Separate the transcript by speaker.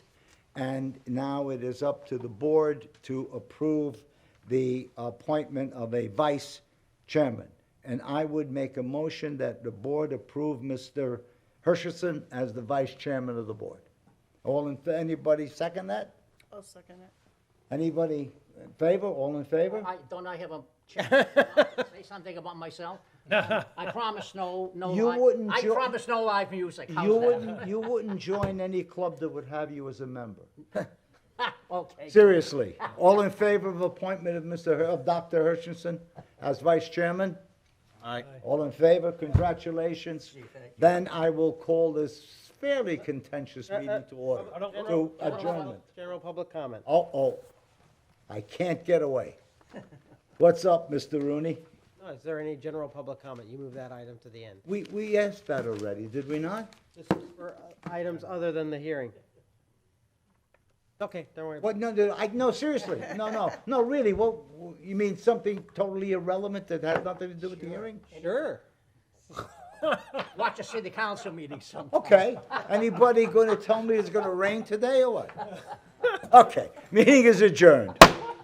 Speaker 1: And now it is up to the board to approve the appointment of a vice chairman. And I would make a motion that the board approve Mr. Hersherson as the vice chairman of the board. All in, anybody second that?
Speaker 2: I'll second it.
Speaker 1: Anybody in favor? All in favor?
Speaker 3: I, don't I have a chance to say something about myself? I promise no, no
Speaker 1: You
Speaker 3: live.
Speaker 1: wouldn't
Speaker 3: I
Speaker 1: jo-
Speaker 3: promise no live music, how's
Speaker 1: You
Speaker 3: that?
Speaker 1: wouldn't, you wouldn't join any club that would have you as a member.
Speaker 3: Okay,
Speaker 1: Seriously, all in favor of appointment of Mr., Her- of Dr. Hershenson as vice chairman?
Speaker 4: Aye.
Speaker 1: All in favor, congratulations. Then I will call this fairly contentious meeting to order, to adjournment.
Speaker 4: General public comment.
Speaker 1: Oh, oh, I can't get away. What's up, Mr. Rooney?
Speaker 4: No, Oh, is there any general public comment? You move that item to the end.
Speaker 1: We, we asked that already, did we not?
Speaker 4: This is for uh, items other than the hearing. Okay, don't worry. about
Speaker 1: What, no, no, I, no, seriously, no, no, no, really, what, you mean something totally irrelevant that has nothing to do with the hearing?
Speaker 4: it. Sure.
Speaker 3: watch a city council meeting sometime.
Speaker 1: Okay, anybody gonna tell me it's gonna rain today or what? Okay, meeting is adjourned.